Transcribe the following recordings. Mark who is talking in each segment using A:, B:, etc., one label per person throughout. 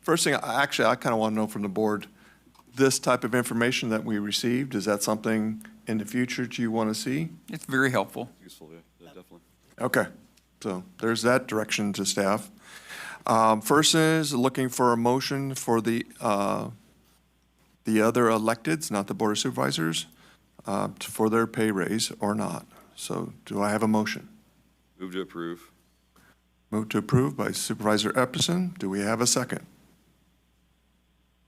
A: First thing, I- actually, I kind of want to know from the board, this type of information that we received, is that something in the future do you want to see?
B: It's very helpful.
C: Useful, yeah, definitely.
A: Okay, so there's that direction to staff. Um, First is looking for a motion for the, uh, the other electeds, not the Board of Supervisors, uh, t- for their pay raise or not. So do I have a motion?
C: Move to approve.
A: Move to approve by Supervisor Epperson. Do we have a second?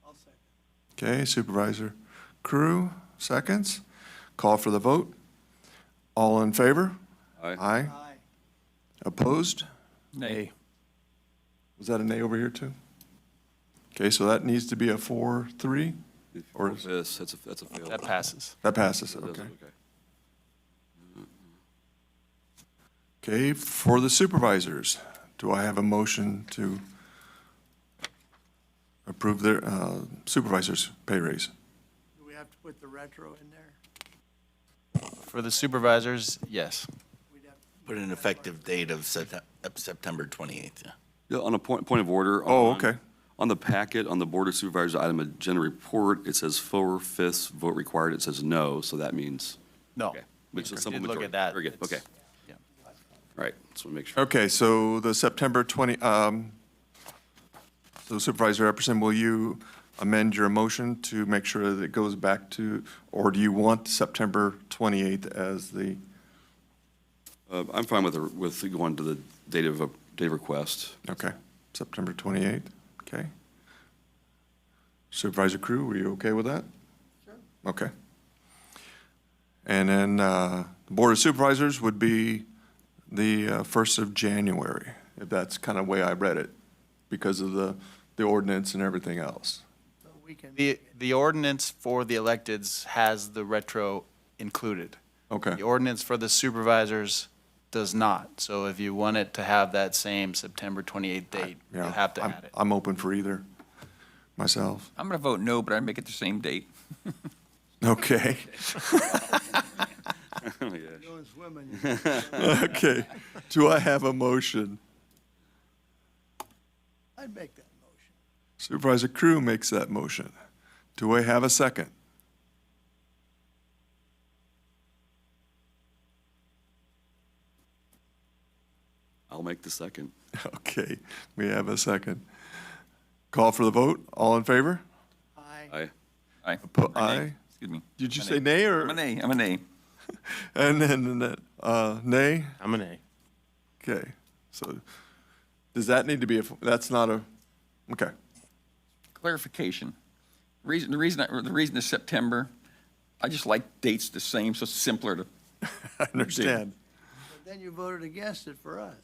A: I'll second. Okay, Supervisor Crew, seconds. Call for the vote. All in favor?
C: Aye.
A: Aye. Opposed?
B: Nay.
A: Was that an A over here too? Okay, so that needs to be a four, three? Or-
C: Yes, that's a, that's a fail.
D: That passes.
A: That passes,
C: That does
A: okay.
C: it,
A: Okay, for the supervisors, do I have a motion to approve their uh, supervisors' pay raise?
E: Do we have to put the retro in there?
D: For the supervisors, yes.
E: We'd have to
F: Put an effective date of Sept- of September 28th. yeah.
C: Yeah, on a point, point of order.
A: Oh,
C: on-
A: okay.
C: On the packet, on the Board of Supervisors item agenda report, it says four-fifths vote required. It says no, so that means.
D: No.
C: Okay, Which is simple
D: Did look
C: majority.
D: at that.
C: Very good, okay.
D: It's- yeah.
C: All right, just want to make sure.
A: Okay, so the September 20, um, so Supervisor Epperson, will you amend your motion to make sure that it goes back to, or do you want September 28th as the,
C: Uh, I'm fine with, the- with going to the date of, a- date of request.
A: okay, September 28th, okay? Supervisor Crew, were you okay with that? Sure. Okay. And then uh, the Board of Supervisors would be the uh, 1st of January, if that's kind of way I read it, because of the, the ordinance and everything else.
E: so we can-
D: The, the ordinance for the electeds has the retro included.
A: Okay.
D: The ordinance for the supervisors does not. So if you want it to have that same September 28th date, you'll
A: Yeah,
D: have to
A: I'm-
D: add it.
A: I'm open for either, myself.
B: I'm going to vote no, but I'd make it the same date.
A: Okay,
C: Oh, yeah.
E: Those women,
A: okay. Do I have a motion?
E: I'd make that motion.
A: Supervisor Crew makes that motion. Do I have a second?
C: I'll make the second.
A: Okay, we have a second. Call for the vote. All in favor?
E: Aye,
C: Aye.
B: Aye.
A: Po-
B: Or nay.
A: aye.
B: Excuse me.
A: Did you say nay or?
B: I'm a nay, I'm a nay.
A: And then, uh, nay?
D: I'm an A.
A: Okay, so does that need to be, a? that's not a, okay,
B: Clarification. Reason, the reason, I- the reason is September, I just like dates the same, so it's simpler to,
A: I understand.
E: but then you voted against it for us.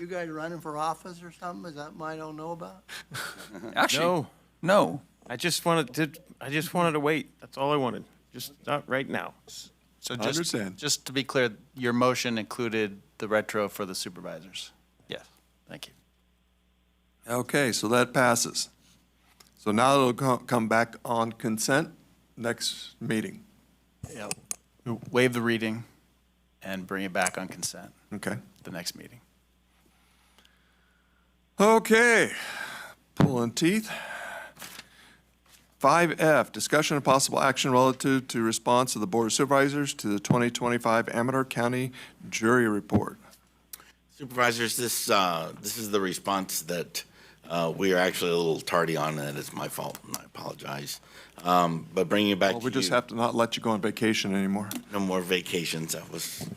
E: You guys running for office or something, is that mine I don't know about?
B: actually,
G: No,
B: no.
G: I just wanted to, I just wanted to wait. That's all I wanted. Just not right now.
D: So
A: I
D: just,
A: understand.
D: just to be clear, your motion included the retro for the supervisors? Yes, thank you.
A: Okay, so that passes. So now it'll co- come back on consent next meeting.
D: Yep. Waive the reading and bring it back on consent
A: Okay.
D: the next meeting.
A: Okay, pulling teeth. 5F, discussion of possible action relative to response of the Board of Supervisors to the 2025 Amador County Jury Report.
F: Supervisors, this, uh, this is the response that uh, we are actually a little tardy on, and it's my fault, and I apologize. Um, But bringing it back
A: Well,
F: to
A: we just
F: you,
A: have to not let you go on vacation anymore.
F: no more vacations, that was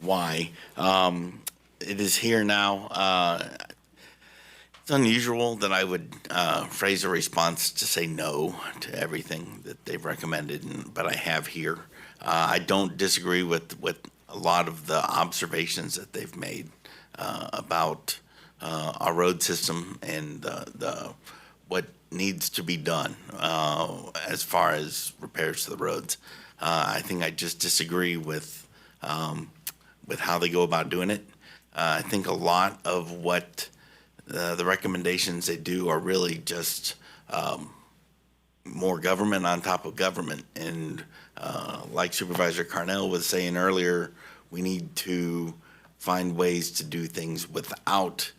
F: why. Um, It is here now. Uh, It's unusual that I would uh, phrase a response to say no to everything that they've recommended, and- but I have here. Uh, I don't disagree with, with a lot of the observations that they've made uh, about uh, our road system and the, the, what needs to be done uh, as far as repairs to the roads. Uh, I think I just disagree with, um, with how they go about doing it. Uh, I think a lot of what uh, the recommendations they do are really just um, more government on top of government. And uh, like Supervisor Carnell was saying earlier, we need to find ways to do things without